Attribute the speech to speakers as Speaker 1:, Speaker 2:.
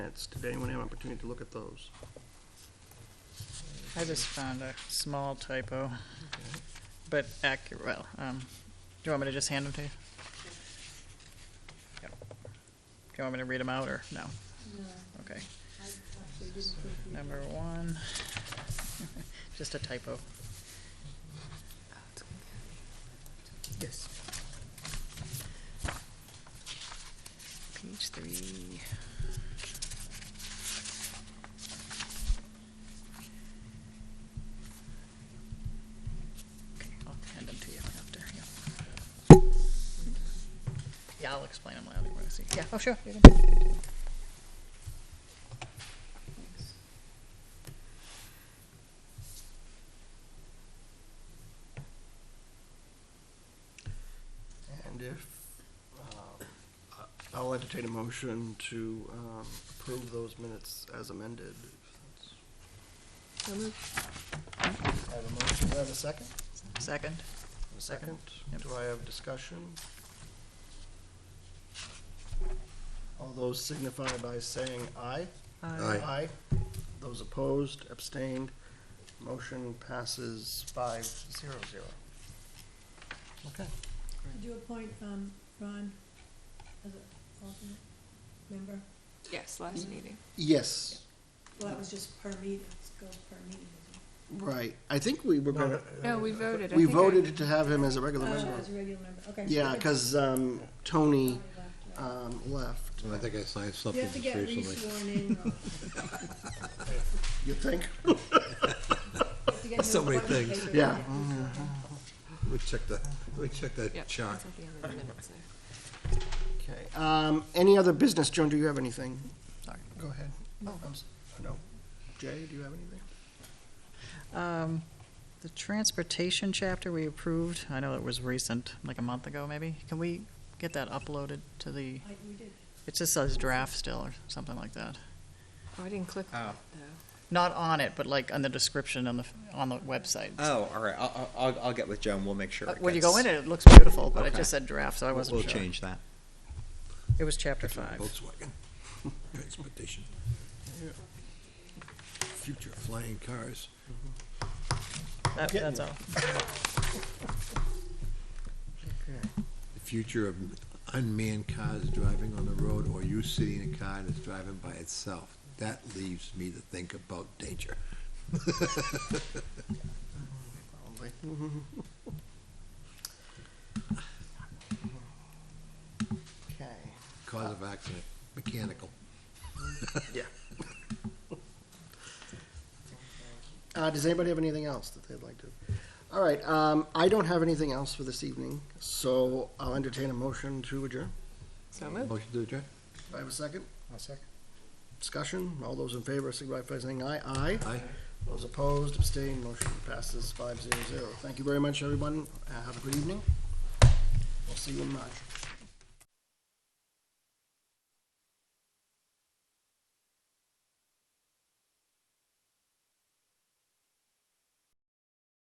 Speaker 1: minutes. Did anyone have an opportunity to look at those?
Speaker 2: I just found a small typo, but accurate, well, um, do you want me to just hand them to you? Yep. Do you want me to read them out, or no?
Speaker 3: No,
Speaker 2: Okay.
Speaker 3: I actually didn't think we.
Speaker 2: Number one, just a typo. Yes. Page three. Okay, I'll hand them to you after, yeah. Yeah, I'll explain them later, you wanna see. Yeah, oh, sure. you can-
Speaker 3: Thanks.
Speaker 1: And if, um, I- I'll entertain a motion to um, approve those minutes as amended.
Speaker 3: So moved.
Speaker 1: I have a motion, do I have a second?
Speaker 2: Second.
Speaker 1: A second.
Speaker 2: Yep.
Speaker 1: Do I have discussion? All those signify by saying aye.
Speaker 4: Aye.
Speaker 1: Aye. Those opposed, abstained, motion passes five zero zero. Okay.
Speaker 3: Did you appoint, um, Ron as an alternate member?
Speaker 5: Yes, last
Speaker 1: Mm-hmm.
Speaker 5: meeting.
Speaker 1: Yes,
Speaker 3: Well, that was just per meeting, let's go per meeting. isn't
Speaker 1: right. I think we were gonna,
Speaker 5: No, we voted. I
Speaker 1: we
Speaker 5: think I-
Speaker 1: voted to have him as a regular
Speaker 3: it?
Speaker 1: member.
Speaker 3: Oh, as a regular member, okay.
Speaker 1: Yeah,
Speaker 3: Okay.
Speaker 1: because, um, Tony,
Speaker 3: Sorry, left, right.
Speaker 1: um, left.
Speaker 4: I think I signed
Speaker 3: You
Speaker 4: something
Speaker 3: have to get
Speaker 4: recently.
Speaker 3: re-sworn in, Ron.
Speaker 1: You think?
Speaker 3: You have to get
Speaker 4: So
Speaker 3: new
Speaker 4: many
Speaker 3: appointment
Speaker 4: things.
Speaker 3: paper.
Speaker 1: Yeah.
Speaker 4: Let me check that, let me check
Speaker 5: Yep,
Speaker 4: that chart.
Speaker 5: that's at the end of the minutes there.
Speaker 1: Okay, um, any other business? Joan, do you have anything?
Speaker 2: Sorry.
Speaker 1: Go ahead. No. No. Jay, do you have anything?
Speaker 2: Um, The transportation chapter we approved, I know it was recent, like a month ago maybe. Can we get that uploaded to the,
Speaker 3: I, we did.
Speaker 2: it just says draft still or something like that?
Speaker 5: Oh, I didn't click on
Speaker 6: Oh.
Speaker 5: it, though.
Speaker 2: Not on it, but like on the description on the, on the website.
Speaker 6: Oh, all right. I'll, I'll- I'll, I'll get with Joan. We'll make sure.
Speaker 2: Uh,
Speaker 6: it
Speaker 2: When you
Speaker 6: gets-
Speaker 2: go in it, it looks beautiful, but it
Speaker 6: Okay.
Speaker 2: just said draft, so I
Speaker 6: we'll-
Speaker 2: wasn't sure.
Speaker 6: We'll change that.
Speaker 2: It was chapter five.
Speaker 4: Volkswagen, transportation. Future flying cars.
Speaker 2: That- That's all.
Speaker 4: The future of unmanned cars driving on the road or you sitting in a car that's driving by itself. That leaves me to think about danger.
Speaker 1: Probably. Okay,
Speaker 4: Cause of accident, mechanical.
Speaker 1: yeah. Uh, does anybody have anything else that they'd like to? All right, um, I don't have anything else for this evening, so I'll entertain a motion to adjourn.
Speaker 5: So moved.
Speaker 4: Motion to adjourn?
Speaker 1: Do I have a second?
Speaker 6: I'll second.
Speaker 1: Discussion, all those in favor, signify by saying aye. Aye.
Speaker 4: Aye.
Speaker 1: Those opposed, abstained, motion passes five zero zero. Thank you very much, everyone. Uh, Have a good evening. We'll see you in March.